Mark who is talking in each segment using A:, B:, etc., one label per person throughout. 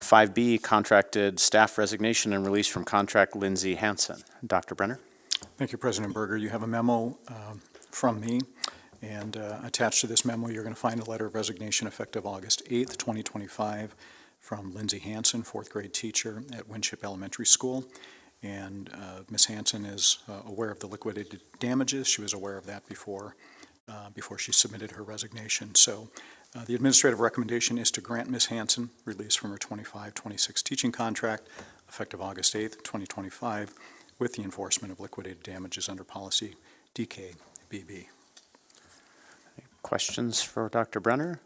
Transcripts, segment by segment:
A: Five B, contracted staff resignation and release from contract Lindsay Hansen. Dr. Brenner?
B: Thank you, President Berger. You have a memo um, from me, and uh, attached to this memo, you're going to find a letter of resignation effective August 8th, 2025, from Lindsay Hanson, fourth grade teacher at Winship Elementary School. And uh, Ms. Hanson is uh, aware of the liquidated damages. She was aware of that before, uh, before she submitted her resignation. So uh, the administrative recommendation is to grant Ms. Hanson release from her 25-26 teaching contract effective August 8th, 2025, with the enforcement of liquidated damages under policy DKBB.
A: Questions for Dr. Brenner?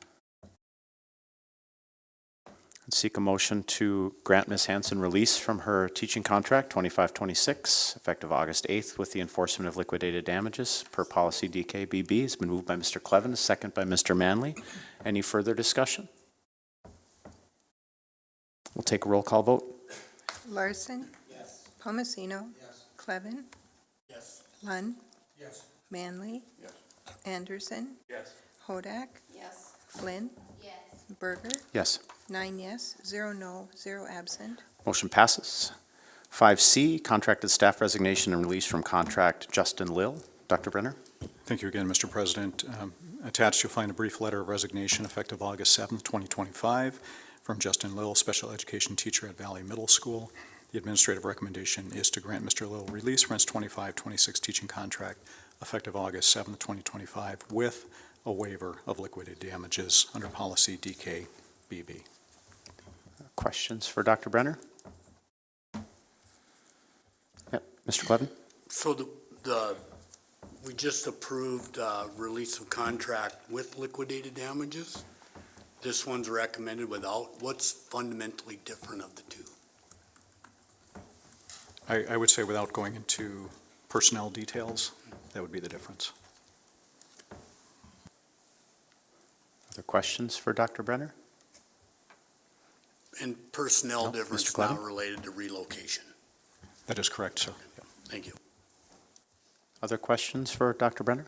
A: I'd Seek a motion to grant Ms. Hanson release from her teaching contract 2526, effective August 8th, with the enforcement of liquidated damages per policy DKBB. It's been moved by Mr. Clevin, a second by Mr. Manley. Any further discussion? We'll take a roll call vote.
C: Larson? Yes. Palmasino? Yes. Clevin? Yes. Lund?
B: Yes.
C: Manley? Yes. Anderson? Yes. Hodak?
D: Yes.
C: Flynn?
D: Yes.
C: Berger?
A: Yes.
C: Nine yes, zero no, zero absent.
A: Motion passes. 5C, contracted staff resignation and release from contract Justin Lill. Dr. Brenner?
B: Thank you again, Mr. President. Um, Attached, you'll find a brief letter of resignation effective August 7th, 2025, from Justin Lill, special education teacher at Valley Middle School. The administrative recommendation is to grant Mr. Lill release from his 25-26 teaching contract effective August 7th, 2025, with a waiver of liquidated damages under policy DKBB.
A: Questions for Dr. Brenner? Yep, Mr. Clevin?
E: So the, the, we just approved, uh, release of contract with liquidated damages. This one's recommended without. What's fundamentally different of the two?
B: I I would say without going into personnel details, that would be the difference.
A: Other questions for Dr. Brenner?
E: And
A: No,
E: personnel
A: Mr.
E: difference
A: Clevin?
E: not related to relocation.
B: That is correct, sir.
E: Thank you.
A: Other questions for Dr. Brenner?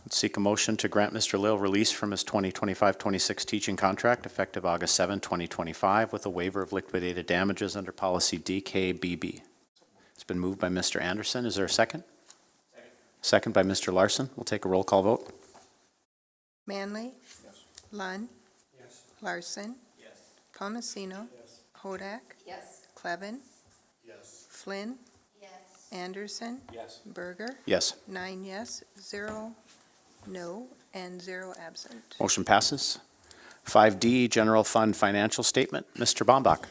A: Let's seek a motion to grant Mr. Lill release from his 2025-26 teaching contract effective August 7, 2025, with a waiver of liquidated damages under policy DKBB. It's been moved by Mr. Anderson. Is there a second? Second by Mr. Larson. We'll take a roll call vote.
C: Manley? Yes. Lund? Yes. Larson? Yes. Palmasino? Yes. Hodak?
D: Yes.
C: Clevin?
E: Yes.
C: Flynn?
D: Yes.
C: Anderson? Yes. Berger?
A: Yes.
C: Nine yes, zero no, and zero absent.
A: Motion passes. 5D, General Fund Financial Statement. Mr. Bombach.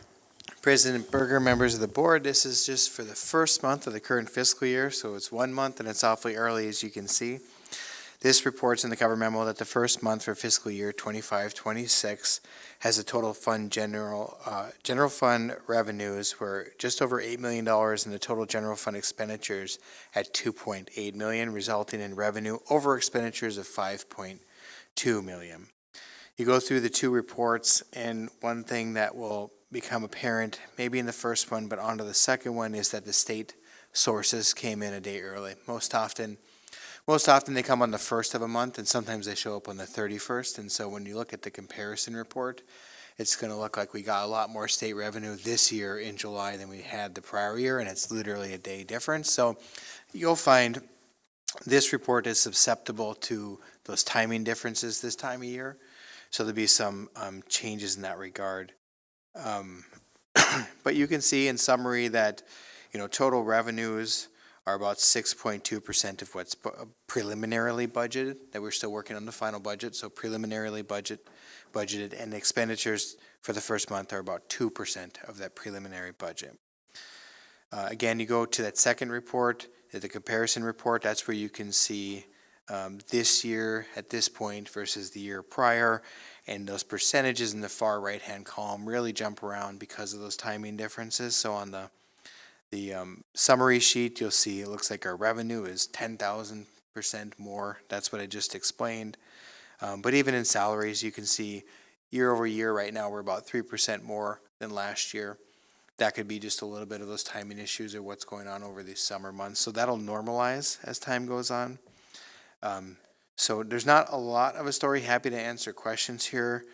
F: President Berger, members of the board, this is just for the first month of the current fiscal year, so it's one month and it's awfully early, as you can see. This reports in the cover memo that the first month for fiscal year 25-26 has a total fund general, uh, general fund revenues were just over eight million dollars and the total general fund expenditures at two point eight million, resulting in revenue over expenditures of five point two million you go through the two reports, and one thing that will become apparent, maybe in the first one, but onto the second one, is that the state sources came in a day early. Most often, most often they come on the first of a month, and sometimes they show up on the thirty-first. And so when you look at the comparison report, it's going to look like we got a lot more state revenue this year in July than we had the prior year, and it's literally a day difference. So you'll find this report is susceptible to those timing differences this time of year. So there'll be some um, changes in that regard. Um, but you can see in summary that, you know, total revenues are about 6.2% of what's bu- preliminarily budgeted, that we're still working on the final budget, so preliminarily budget, budgeted, and expenditures for the first month are about 2% of that preliminary budget. Uh, again, you go to that second report, uh, the comparison report, that's where you can see um, this year at this point versus the year prior. And those percentages in the far right-hand column really jump around because of those timing differences. So on the, the um, summary sheet, you'll see it looks like our revenue is ten thousand percent more. That's what I just explained. Um, But even in salaries, you can see year over year, right now, we're about three percent more than last year. That could be just a little bit of those timing issues or what's going on over these summer months. So that'll normalize as time goes on. Um, So there's not a lot of a story. Happy to answer questions here.